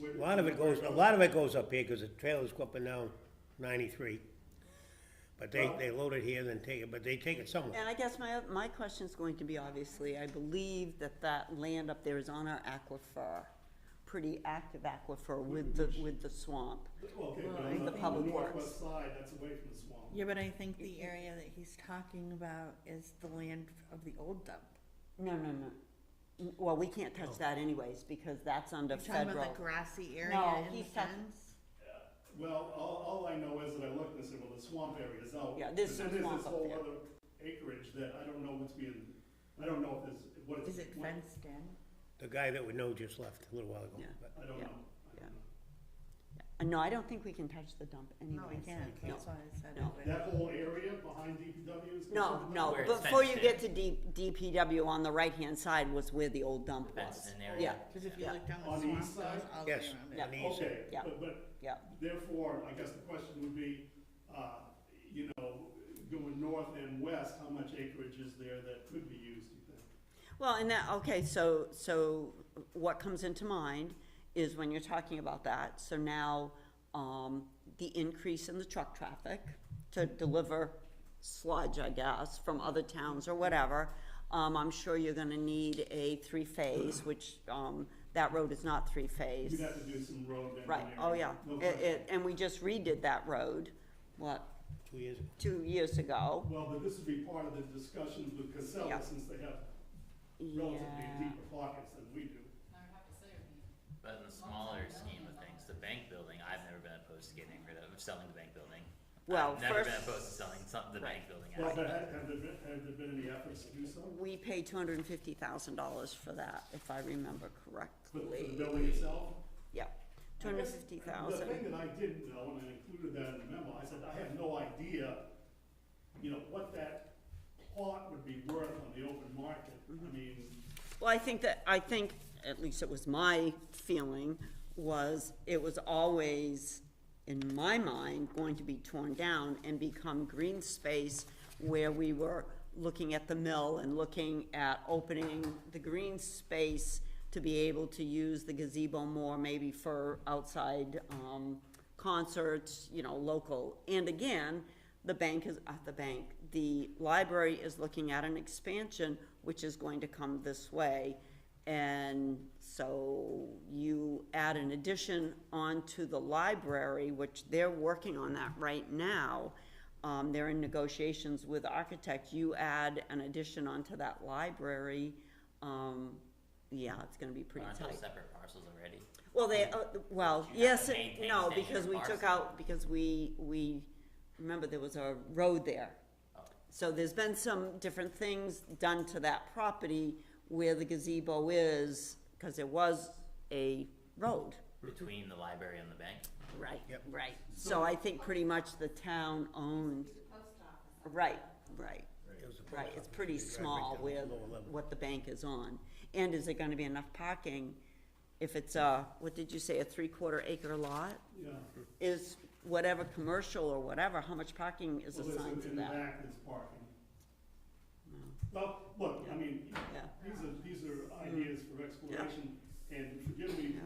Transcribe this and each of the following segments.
where- A lot of it goes, a lot of it goes up here, because the trailers go up and down ninety-three. But they, they load it here, then take it, but they take it somewhere. And I guess my, my question's going to be, obviously, I believe that that land up there is on our aquifer, pretty active aquifer with the, with the swamp. Okay, but Right. on The on public works. northwest side, that's away from the swamp. Yeah, but I think the area that he's talking about is the land of the old dump. No, no, no. N- Well, we can't touch that anyways, because that's under You're talking about federal. the grassy area No, in the he's talking- fence? Well, all, all I know is that I looked and I said, well, the swamp area is out. Yeah, there's But some then swamp up there. this whole other acreage that I don't know what's being, I don't know if it's, what it's. Is it what- fenced in? The guy that we know just left a little while ago, Yeah. but I don't Yeah, know. I don't yeah. know. Uh, No, I don't think we can touch the dump anyways. No, we can't, No. that's why I said No. it. That whole area behind DPW is. No, considered- no, Where it's before you fenced get to D, DPW, on the right-hand side was where the old dump was. Fenced in area. Cause if you Yeah. look down the On the swamp, east it goes side? all the way yes, around it. Yeah. an easy. Okay, Yeah. but, but Yeah, Therefore, I guess the question would be, uh, you know, going north and west, how much acreage is there that could be used, you think? well, and that, okay, so, so what comes into mind is when you're talking about that, so now, um, the increase in the truck traffic to deliver sludge, I guess, from other towns or whatever, um, I'm sure you're gonna need a three-phase, which, um, that road is not three-phase. You'd have to do some road engineering. Right, oh, yeah, No it, question. it, and we just redid that road, what, two years ago. two years ago? Well, but this would be part of the discussions with Yeah. Casella, since they have relatively Yeah, deeper pockets than we do. But in the smaller scheme of things, the bank building, I've never been opposed to getting rid of, selling the bank building. Well, I've never been first- opposed to selling some, the Right. bank building. Well, out. but have, have there been, have there been any efforts to do so? we paid two hundred and fifty thousand dollars for that, if I remember For for the correctly, building itself? yeah, two hundred and fifty thousand. The thing that I didn't know, and I included that in the memo, I said, I have no idea, you know, what that plot would be worth on the open market. Mm-hmm. I mean, Well, I think that, I think, at least it was my feeling, was it was always, in my mind, going to be torn down and become green space where we were looking at the mill and looking at opening the green space to be able to use the gazebo more maybe for outside, um, concerts, you know, local. And again, the bank is, uh, the bank, the library is looking at an expansion, which is going to come this way. And so you add an addition onto the library, which they're working on that right now. Um, they're in negotiations with architects. You add an addition onto that library, um, yeah, it's gonna be pretty Aren't tight. those separate parcels already? Well, they, uh, well, Did you have yes, to and maintain no, that because we took parcel? out, because we, we, remember there was a road there. Oh. So there's been some different things done to that property where the gazebo is, cause it was a road. Between the library and the bank? Right, Yep. right. So I think pretty much the town owns. Right, right. It was a post Right, it's office. pretty You drive right small down to with lower level. what the bank is on. And is there gonna be enough parking if it's a, what did you say, a three-quarter acre lot? yeah. Is whatever commercial or whatever, how much parking is Well, there's- assigned to In the that? back, there's parking. Well, look, I mean, Yeah. Mm. these are, these are ideas for exploration, and forgive me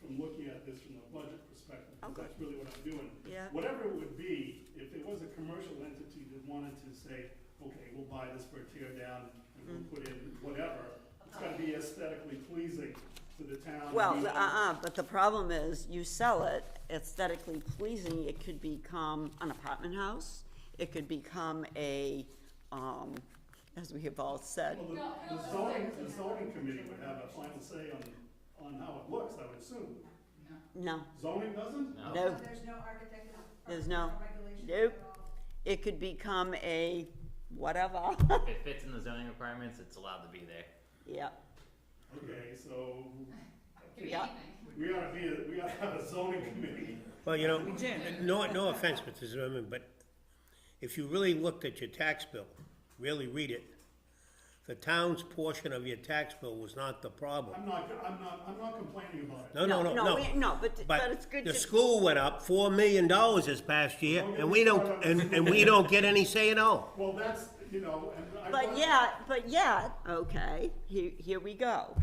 from looking at this from a budget perspective, because Okay. that's really what I'm doing. Yeah. Whatever it would be, if there was a commercial entity that wanted to say, okay, we'll buy this for a tear down, and Mm. we'll put in whatever, it's gotta be aesthetically pleasing to the town. Well, We- uh-uh, but the problem is, you sell it aesthetically pleasing, it could become an apartment house, it could become a, um, as we have all said, Well, the- the zoning, the zoning committee would have a final say on, on how it looks, I would assume. no, Zoning doesn't? No. no, There's no architect. There's no- regulation nope. at all. It could become a whatever, If it fits in the zoning requirements, it's allowed to be there. yeah, Okay, so yeah. we ought to be, a- we ought to have a zoning committee. Well, you know, no, no offense, Mr. Zimmerman, but if you really looked at your tax bill, really read it, the town's portion of your tax bill was not the problem. I'm not, I'm not, I'm not complaining about it. No, no, no, no. we- No, but, but it's good the to, school went up four million dollars this past year, Don't get and me we don't, started on and, the and we don't get any say at all. Well, that's, you know, and I. but yet, but yet, okay, here, here we go.